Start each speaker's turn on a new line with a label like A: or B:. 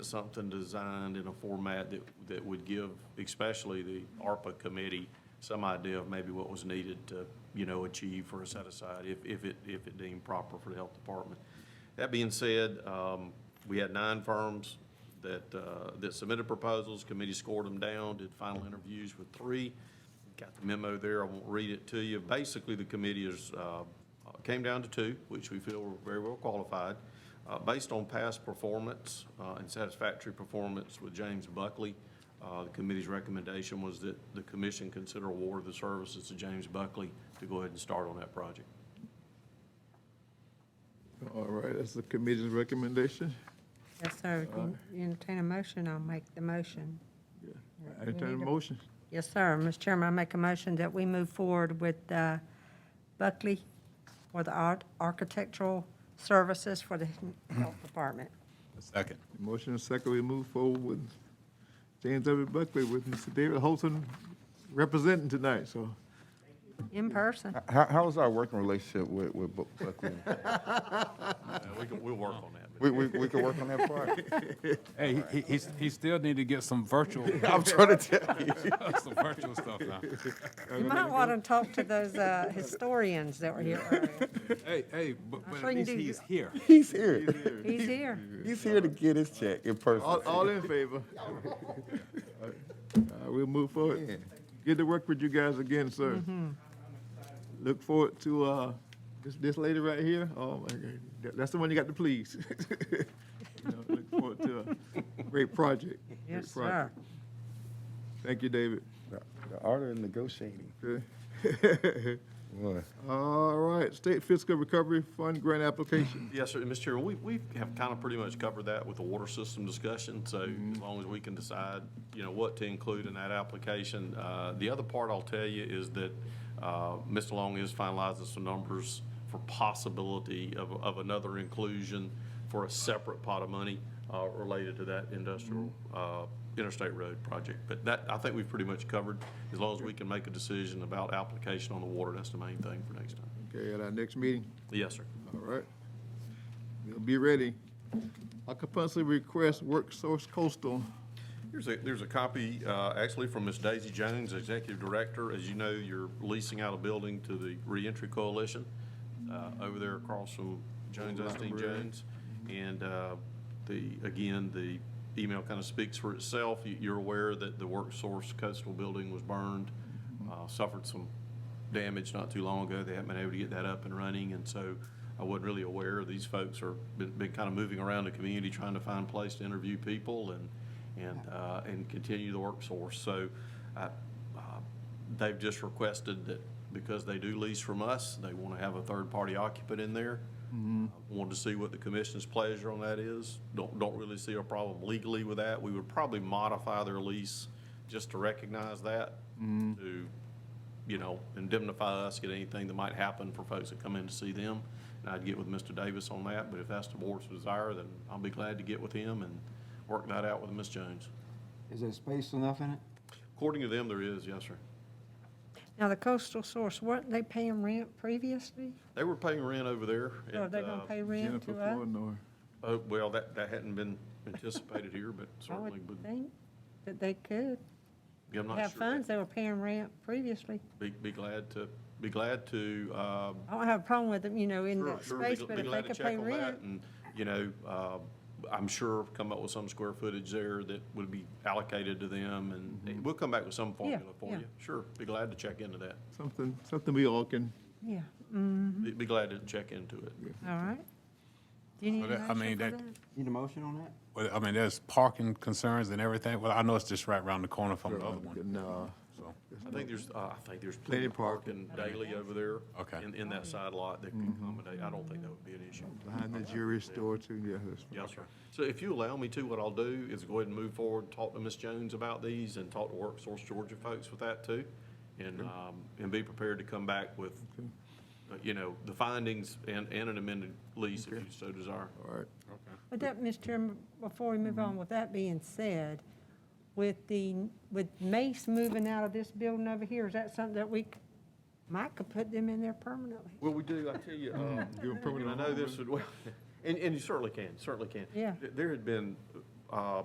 A: something designed in a format that, that would give especially the ARPA committee some idea of maybe what was needed to, you know, achieve for a set aside if, if it, if it deemed proper for the health department. That being said, um, we had nine firms that, uh, that submitted proposals. Committee scored them down, did final interviews with three. Got the memo there, I won't read it to you. Basically, the committee is, uh, came down to two, which we feel were very well qualified. Uh, Based on past performance uh, and satisfactory performance with James Buckley, uh, the committee's recommendation was that the commission consider award of the services to James Buckley to go ahead and start on that project.
B: All right, that's the committee's recommendation.
C: Yes, sir. Can you Entertain a motion, I'll make the motion.
B: I Entertain a motion.
C: Yes, sir. Mr. Chairman, I make a motion that we move forward with uh, Buckley for the art- architectural services for the health department.
D: Second.
B: Motion and second, we move forward with James W. Buckley with Mr. David Holton representing tonight, so.
C: In person.
E: How, how's our working relationship with, with Bu- Buckley?
A: Uh, we can- We'll work on that. but-
E: We, we, we could work on that part.
D: Hey, he- he, he's, he still need to get some virtual,
E: I'm trying to tell you.
D: some virtual stuff now.
C: You might want to talk to those uh, historians that were here earlier.
D: Hey, hey, but, but
C: sure
D: at
C: you
D: least
C: do.
D: he's here.
E: He's here.
C: He's here.
E: He's here to get his check in
B: All,
E: person.
B: all in favor? Uh, We'll move forward. Good to work with you guys again, sir.
C: Mm-hmm.
B: Look forward to, uh, this, this lady right here, oh my God, that- that's the one you got to please. You know, Look forward to a great project. great
C: Yes, sir.
B: project. Thank you, David.
E: The the art of negotiating.
B: Okay.
E: Boy.
B: All right, State Fiscal Recovery Fund Grant Application.
A: Yes, sir, And, Mr. Chairman, we, we have kind of pretty much covered that with the water system discussion, so as long as we can decide, you know, what to include in that application. Uh, The other part I'll tell you is that uh, Mr. Long is finalizing some numbers for possibility of, of another inclusion for a separate pot of money uh, related to that industrial, uh, interstate road project. But that, I think we've pretty much covered, as long as we can make a decision about application on the water, that's the main thing for next time.
B: Okay, at our next meeting,
A: Yes, sir.
B: all right. We'll be ready. Occupancy request, work source coastal.
A: There's a, there's a copy, uh, actually from Ms. Daisy Jones, Executive Director. As you know, you're leasing out a building to the Reentry Coalition, uh, over there across from Jones, Osteen Jones. And, uh, the, again, the email kind of speaks for itself. You- You're aware that the Work Source Coastal Building was burned, uh, suffered some damage not too long ago. They haven't been able to get that up and running, and so I wasn't really aware. These folks are, been, been kind of moving around the community trying to find a place to interview people and, and, uh, and continue the work source. So, I, uh, they've just requested that because they do lease from us, they want to have a third-party occupant in there. Wanted to see what the commission's pleasure on that is. Don't, don't really see a problem legally with that. We would probably modify their lease just to recognize that, to, you know, indemnify us, get anything that might happen for folks that come in to see them. And I'd get with Mr. Davis on that, but if that's the board's desire, then I'll be glad to get with him and work that out with Ms. Jones.
F: Is there space enough in it?
A: According to them, there is, yes, sir.
C: Now, the coastal source, weren't they paying rent previously?
A: They were paying rent over there.
C: Or are
A: and,
C: Oh, they going
A: uh,
C: to pay rent
B: Jennifer
C: to us?
B: Flournoy.
A: Oh, well, that, that hadn't been anticipated here, but
C: I
A: certainly,
C: would
A: would
C: think that they could
A: yeah, I'm not
C: have
A: sure.
C: funds. They were paying rent previously.
A: Be, be glad to, be glad to, um,
C: I don't have a problem with them, you know, in
A: Sure,
C: that
A: sure, be
C: space,
A: gl-
C: but
A: be
C: if they
A: glad to
C: could
A: check
C: pay
A: on that
C: rent.
A: And, you know, uh, I'm sure come up with some square footage there that would be allocated to them, and- and we'll come back with some formula for
C: Mm-hmm. yeah.
A: you. Sure, be glad to check into that.
B: Something, something we all can,
C: Yeah, mm,
A: Be be glad to check into it.
C: all right. Do you need
D: Well,
C: a
D: that- I
C: motion
D: mean,
C: for
D: that-
C: that?
F: Need a motion on that?
D: Well, I mean, there's parking concerns and everything. Well, I know it's just right around the corner from the other one,
B: no,
D: so.
A: I think there's, uh, I think there's
B: Plenty
A: plenty
B: of
A: of
B: parking.
A: parking daily over there.
D: Okay.
A: In, in that
C: Mm-hmm.
A: side lot that could accommodate, I don't think that would be an issue.
B: behind the jury store too, yeah. that's-
A: Yes, sir. So if you allow me to, what I'll do is go ahead and move forward, talk to Ms. Jones about these and talk to WorkSource Georgia folks with that too. And, um, and be prepared to come back with, uh, you know, the findings and, and an amended lease if you so desire.
B: All right,
C: But that, Mr. Chairman, before we move
D: Mm-hmm.
C: on, with that being said, with the, with Mace moving out of this building over here, is that something that we, c- might could put them in there permanently?
A: Well, we do, I tell you, um,
B: give them
A: And
B: permanent
A: I know this would, well, and, and you certainly can, certainly can.
C: Yeah.
A: Th- There had been uh,